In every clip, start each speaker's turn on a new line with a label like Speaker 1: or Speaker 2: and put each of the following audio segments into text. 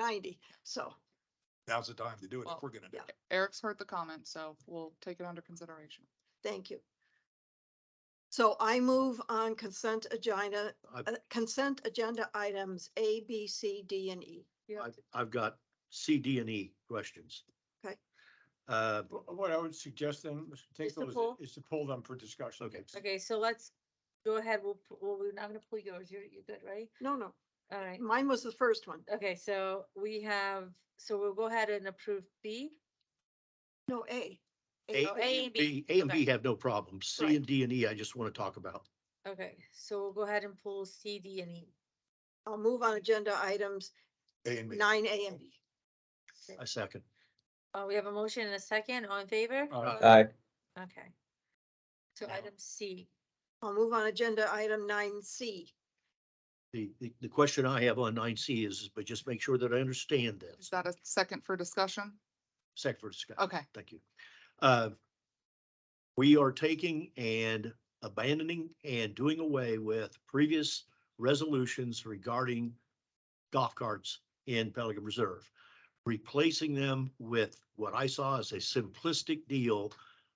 Speaker 1: ninety, so.
Speaker 2: Now's the time to do it
Speaker 3: Well,
Speaker 2: if we're gonna do
Speaker 1: yeah.
Speaker 2: it.
Speaker 3: Eric's heard the comment, so we'll take it under consideration.
Speaker 1: Thank you. So I move on consent agenda,
Speaker 4: I-
Speaker 1: uh, consent agenda items A, B, C, D, and E.
Speaker 4: I've, I've got C, D, and E questions.
Speaker 1: Okay.
Speaker 4: Uh,
Speaker 5: Wh- What I would suggest then, Mr.
Speaker 6: Is to
Speaker 5: Tinkle, is-
Speaker 6: pull?
Speaker 5: is to pull them for discussion.
Speaker 4: Okay.
Speaker 6: Okay, so let's go ahead. We'll, pu- well, we're not gonna pull yours. You're, you're good, right?
Speaker 1: No, no,
Speaker 6: All right.
Speaker 1: mine was the first one.
Speaker 6: Okay, so we have, so we'll go ahead and approve B.
Speaker 1: No, A.
Speaker 4: A,
Speaker 6: Oh, A and B.
Speaker 4: B, A and B
Speaker 6: Okay.
Speaker 4: have no problem. C
Speaker 1: Right.
Speaker 4: and D and E, I just want to talk about.
Speaker 6: Okay, so we'll go ahead and pull C, D, and E.
Speaker 1: I'll move on agenda items
Speaker 2: A and B.
Speaker 1: nine A and B.
Speaker 4: I second.
Speaker 6: Uh, we have a motion and a second. All in favor?
Speaker 5: Uh,
Speaker 7: Aye.
Speaker 6: Okay. So
Speaker 4: Now-
Speaker 6: item C.
Speaker 1: I'll move on agenda item nine C.
Speaker 4: The, the, the question I have on nine C is, but just make sure that I understand
Speaker 3: Is
Speaker 4: this.
Speaker 3: that a second for discussion?
Speaker 4: Second for discussion.
Speaker 3: Okay.
Speaker 4: Thank you. Uh, We are taking and abandoning and doing away with previous resolutions regarding golf carts in Pelican Reserve. Replacing them with what I saw as a simplistic deal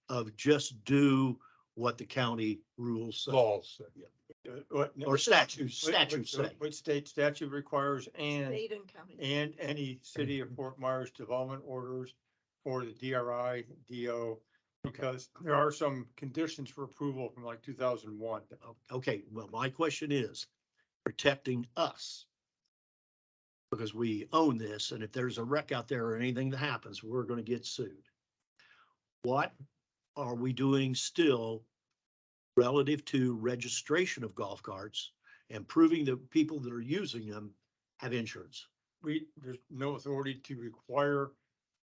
Speaker 4: of just do what the county rules. say.
Speaker 2: Laws.
Speaker 5: uh, what-
Speaker 4: Or statute,
Speaker 5: what- what-
Speaker 4: statute say.
Speaker 5: What state statute requires and,
Speaker 1: State and county.
Speaker 5: and any city
Speaker 2: Mm-hmm.
Speaker 5: of Fort Myers development orders for the DRI, DO, because there are some conditions for approval from like two thousand one.
Speaker 4: Okay, well, my question is protecting us. Because we own this and if there's a wreck out there or anything that happens, we're gonna get sued. What are we doing still relative to registration of golf carts and proving that people that are using them have insurance?
Speaker 5: We, there's no authority to require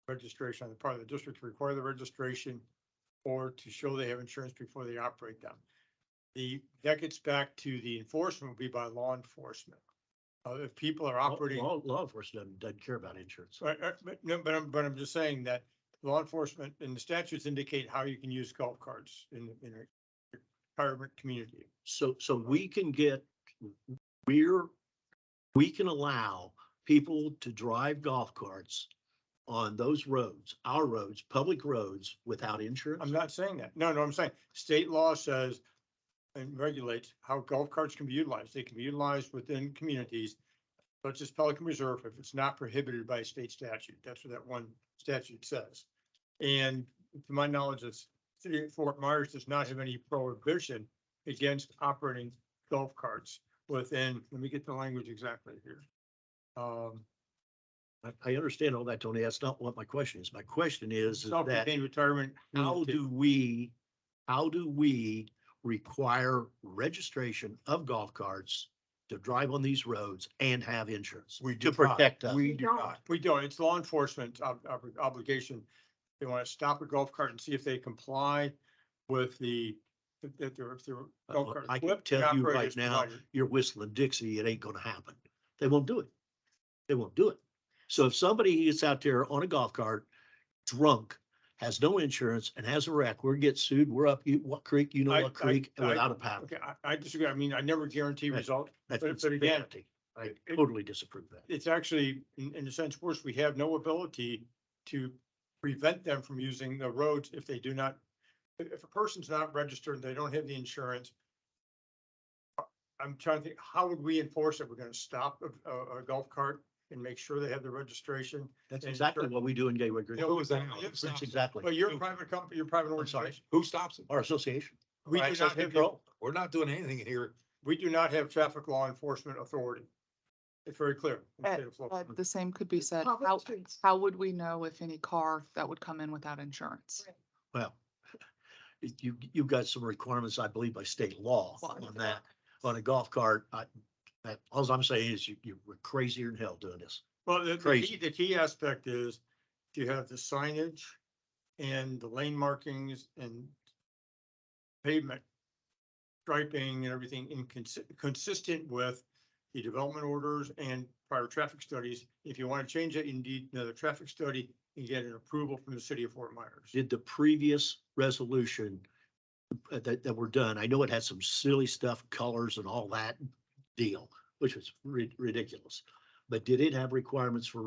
Speaker 5: registration on the part of the district, to require the registration or to show they have insurance before they operate them. The, that gets back to the enforcement will be by law enforcement. Uh, if people are
Speaker 4: Law-
Speaker 5: operating,
Speaker 4: Law, law enforcement doesn't- doesn't care about insurance.
Speaker 5: Right, right, but, no, but I'm, but I'm just saying that law enforcement and the statutes indicate how you can use golf carts in, in a retirement community.
Speaker 4: So, so we can get, we're, we can allow people to drive golf carts on those roads, our roads, public roads without
Speaker 5: I'm
Speaker 4: insurance?
Speaker 5: not saying that. No, no, I'm saying state law says and regulates how golf carts can be utilized. They can be utilized within communities such as Pelican Reserve if it's not prohibited by state statute. That's what that one statute says. And to my knowledge, the city of Fort Myers does not have any prohibition against operating golf carts within, let me get the language exactly here. Um,
Speaker 4: I, I understand all that, Tony. That's not what my question is. My question is, is that
Speaker 5: self-contained retirement.
Speaker 4: how
Speaker 5: community.
Speaker 4: do we, how do we require registration of golf carts to drive on these roads and have insurance?
Speaker 2: We
Speaker 4: To
Speaker 2: do not.
Speaker 4: protect us.
Speaker 2: We do
Speaker 1: No.
Speaker 2: not.
Speaker 5: We don't. It's law enforcement ob- ob- obligation. They want to stop a golf cart and see if they comply with the, that they're, if they're. golf cart
Speaker 4: Uh, I can
Speaker 5: equipped and
Speaker 4: tell you
Speaker 5: operated
Speaker 4: right
Speaker 5: as
Speaker 4: now,
Speaker 5: desired.
Speaker 4: you're whistling Dixie, it ain't gonna happen. They won't do it. They won't do it. So if somebody gets out there on a golf cart, drunk, has no insurance and has a wreck, we're get sued, we're up, you, what creek, you know
Speaker 5: I-
Speaker 4: what
Speaker 5: I-
Speaker 4: creek, and
Speaker 5: I-
Speaker 4: without a paddle.
Speaker 5: Okay, I, I disagree. I mean, I never guarantee
Speaker 4: Right.
Speaker 5: results.
Speaker 4: That's
Speaker 5: but- but again,
Speaker 4: insanity. I
Speaker 5: it-
Speaker 4: totally disapprove that.
Speaker 5: It's actually, in, in a sense, worse. We have no ability to prevent them from using the roads if they do not, if, if a person's not registered, they don't have the insurance. I'm trying to think, how would we enforce it? We're going to stop a, a, a golf cart and make sure they have the registration?
Speaker 4: That's
Speaker 5: and
Speaker 4: exactly
Speaker 5: sure.
Speaker 4: what we do in Gateway Green.
Speaker 5: Yeah,
Speaker 2: Who is that?
Speaker 4: That's exactly.
Speaker 5: But you're a private company, you're a private
Speaker 4: I'm sorry.
Speaker 5: organization.
Speaker 2: Who stops it?
Speaker 4: Our association.
Speaker 5: We do
Speaker 2: Access
Speaker 5: not have,
Speaker 2: control. We're not doing anything here.
Speaker 5: we do not have traffic law enforcement authority. It's very clear. in the
Speaker 3: Uh,
Speaker 5: state of Florida.
Speaker 3: But the same could be said.
Speaker 1: Public
Speaker 3: How,
Speaker 1: streets.
Speaker 3: how would we know if any car that would come in without insurance?
Speaker 4: Well, you, you've got some requirements, I believe, by state law
Speaker 3: Well,
Speaker 4: on that. On a golf cart, I, that, all I'm saying is you, you're crazier than hell doing this.
Speaker 5: Well, the, the
Speaker 4: Crazy.
Speaker 5: key, the key aspect is to have the signage and the lane markings and pavement striping and everything inconsistent, consistent with the development orders and prior traffic studies. If you want to change it, you need another traffic study and get an approval from the city of Fort Myers.
Speaker 4: Did the previous resolution uh, that, that were done, I know it had some silly stuff, colors and all that deal, which was ri- ridiculous. But did it have requirements for